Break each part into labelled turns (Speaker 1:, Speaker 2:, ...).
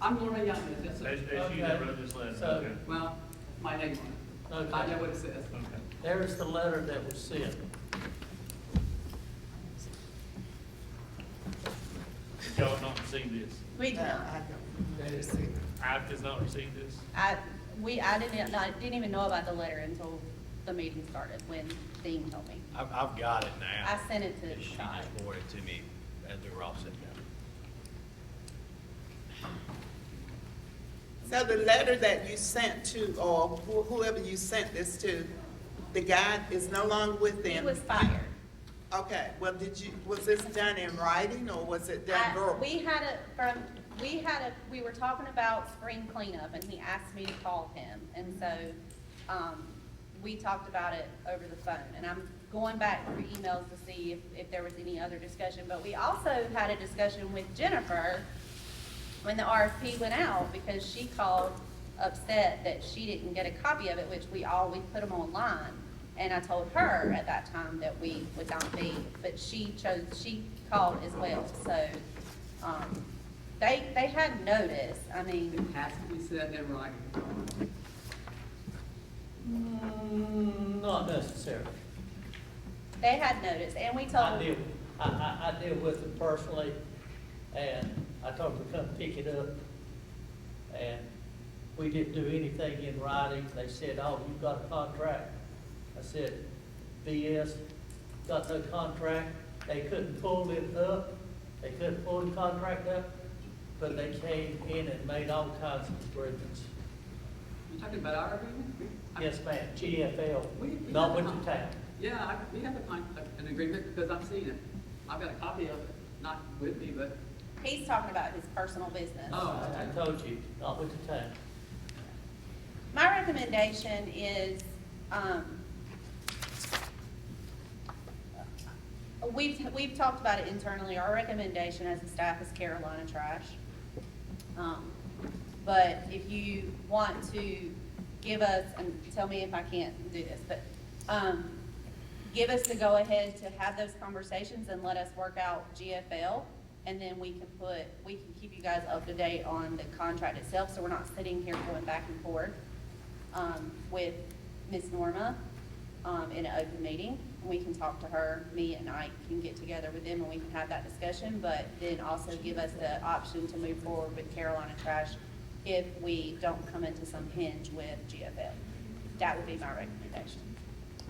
Speaker 1: I'm Lorna Young, that's
Speaker 2: As,
Speaker 1: it.
Speaker 2: as you that wrote this letter,
Speaker 3: So-
Speaker 2: okay,
Speaker 1: Well, my name on it. I know what it says.
Speaker 2: okay.
Speaker 3: There's the letter that was sent.
Speaker 2: Did Y'all not received this.
Speaker 4: We did
Speaker 5: No,
Speaker 4: not.
Speaker 5: I don't receive it.
Speaker 2: I've just not received this.
Speaker 4: I, we, I didn't, I didn't even know about the letter until the meeting started, when Dean told me.
Speaker 6: I've, I've got it now.
Speaker 4: I sent it to
Speaker 6: She
Speaker 4: Todd.
Speaker 6: just forwarded it to me as we were all sitting down.
Speaker 5: So the letter that you sent to, or wh- whoever you sent this to, the guy is no longer with
Speaker 4: He
Speaker 5: them?
Speaker 4: was fired.
Speaker 5: Okay, well, did you, was this done in writing or was
Speaker 4: I-
Speaker 5: it done verbal?
Speaker 4: We had a, from, we had a, we were talking about spring cleanup, and he asked me to call him, and so, um, we talked about it over the phone, and I'm going back through emails to see if, if there was any other discussion, but we also had a discussion with Jennifer when the RFP went out, because she called upset that she didn't get a copy of it, which we always put them online. And I told her at that time that we would not be, but she chose, she called as well, so, um, they, they had notice, I
Speaker 1: It
Speaker 4: mean,
Speaker 1: has to be said in writing.
Speaker 3: Mm, Not necessarily.
Speaker 4: they had notice, and we
Speaker 3: I
Speaker 4: told,
Speaker 3: deal, I, I, I deal with them personally, and I told them to come pick it up. And we didn't do anything in writing, they said, oh, you've got a contract. I said, BS, got no contract, they couldn't pull it up, they couldn't pull the contract up, but they came in and made all kinds of agreements.
Speaker 1: You talking about our agreement?
Speaker 3: Yes, ma'am, GFL,
Speaker 1: We- we
Speaker 3: not
Speaker 1: have
Speaker 3: with
Speaker 1: a con-
Speaker 3: the town.
Speaker 1: Yeah, I- we have a con, an agreement because I've seen it. I've got a copy of it, not with me, but,
Speaker 4: he's talking about his personal business.
Speaker 1: oh,
Speaker 3: I
Speaker 1: okay.
Speaker 3: I told you, not with the town.
Speaker 4: My recommendation is, um, we've, we've talked about it internally, our recommendation as a staff is Carolina trash. Um, But if you want to give us, and tell me if I can't do this, but, um, give us the go-ahead to have those conversations and let us work out GFL, and then we can put, we can keep you guys up to date on the contract itself, so we're not sitting here going back and forth, um, with Ms. Norma, um, in an open meeting. We can talk to her, me and I can get together with them and we can have that discussion, but then also give us the option to move forward with Carolina Trash if we don't come into some hinge with GFL. That would be my recommendation.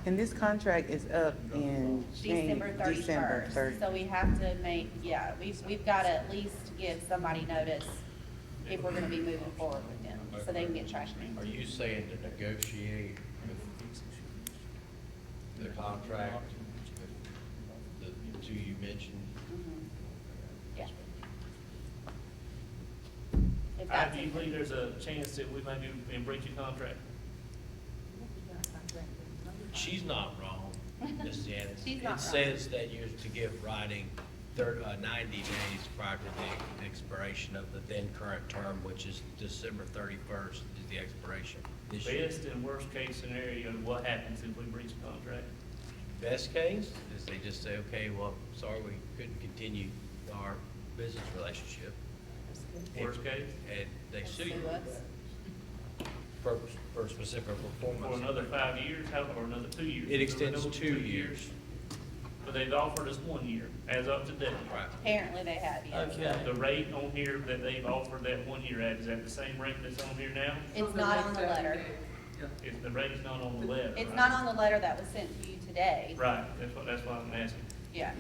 Speaker 7: And this contract is up in Jan-
Speaker 4: December
Speaker 7: December
Speaker 4: thirty-first,
Speaker 7: 30.
Speaker 4: so we have to make, yeah, we've, we've gotta at least give somebody notice if we're gonna be moving forward with them, so they can get trash
Speaker 6: Are
Speaker 4: man.
Speaker 6: you saying to negotiate with the contract, with the two you mentioned?
Speaker 4: Mm-hmm. Yeah. If
Speaker 2: I,
Speaker 4: that's.
Speaker 2: do you believe there's a chance that we may be in breach of contract?
Speaker 6: She's not wrong, Ms. Janice.
Speaker 4: She's not wrong.
Speaker 6: It says that you're to give writing thir uh, ninety days prior to the expiration of the then current term, which is December thirty-first is the expiration. This year.
Speaker 2: Best and worst case scenario, what happens if we breach the contract?
Speaker 6: Best case is they just say, okay, well, sorry, we couldn't continue our business relationship.
Speaker 2: Worst case,
Speaker 6: And they sue you
Speaker 4: Sue us.
Speaker 6: for, for specific
Speaker 2: for
Speaker 6: performance.
Speaker 2: another five years, how, or another two years?
Speaker 6: It extends
Speaker 2: Another
Speaker 6: two years.
Speaker 2: But they've offered us one year, as of today.
Speaker 6: Right.
Speaker 4: Apparently they have, yes.
Speaker 3: Okay.
Speaker 2: The rate on here that they've offered that one year at, is that the same rate that's on here now?
Speaker 4: It's not on the letter.
Speaker 1: Yeah.
Speaker 2: If the rate's not on the letter,
Speaker 4: It's
Speaker 2: right?
Speaker 4: not on the letter that was sent to you today.
Speaker 2: Right, that's what, that's why I'm asking.
Speaker 4: Yeah.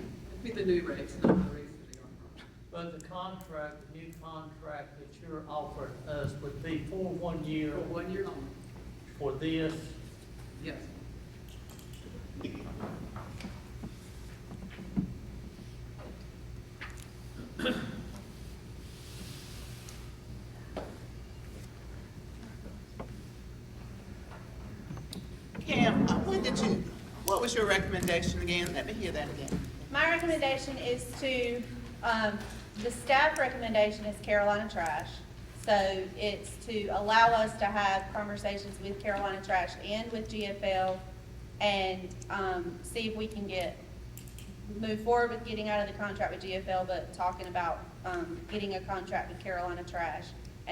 Speaker 1: Be the new rates, not the rates that they are from.
Speaker 3: But the contract, the new contract that you're offering us would be for one year
Speaker 1: For one year only,
Speaker 3: for this,
Speaker 1: yes.
Speaker 5: Cam, uh, when did you, what was your recommendation again? Let me hear that again.
Speaker 4: My recommendation is to, um, the staff recommendation is Carolina Trash. So it's to allow us to have conversations with Carolina Trash and with GFL and, um, see if we can get, move forward with getting out of the contract with GFL, but talking about, um, getting a contract with Carolina Trash.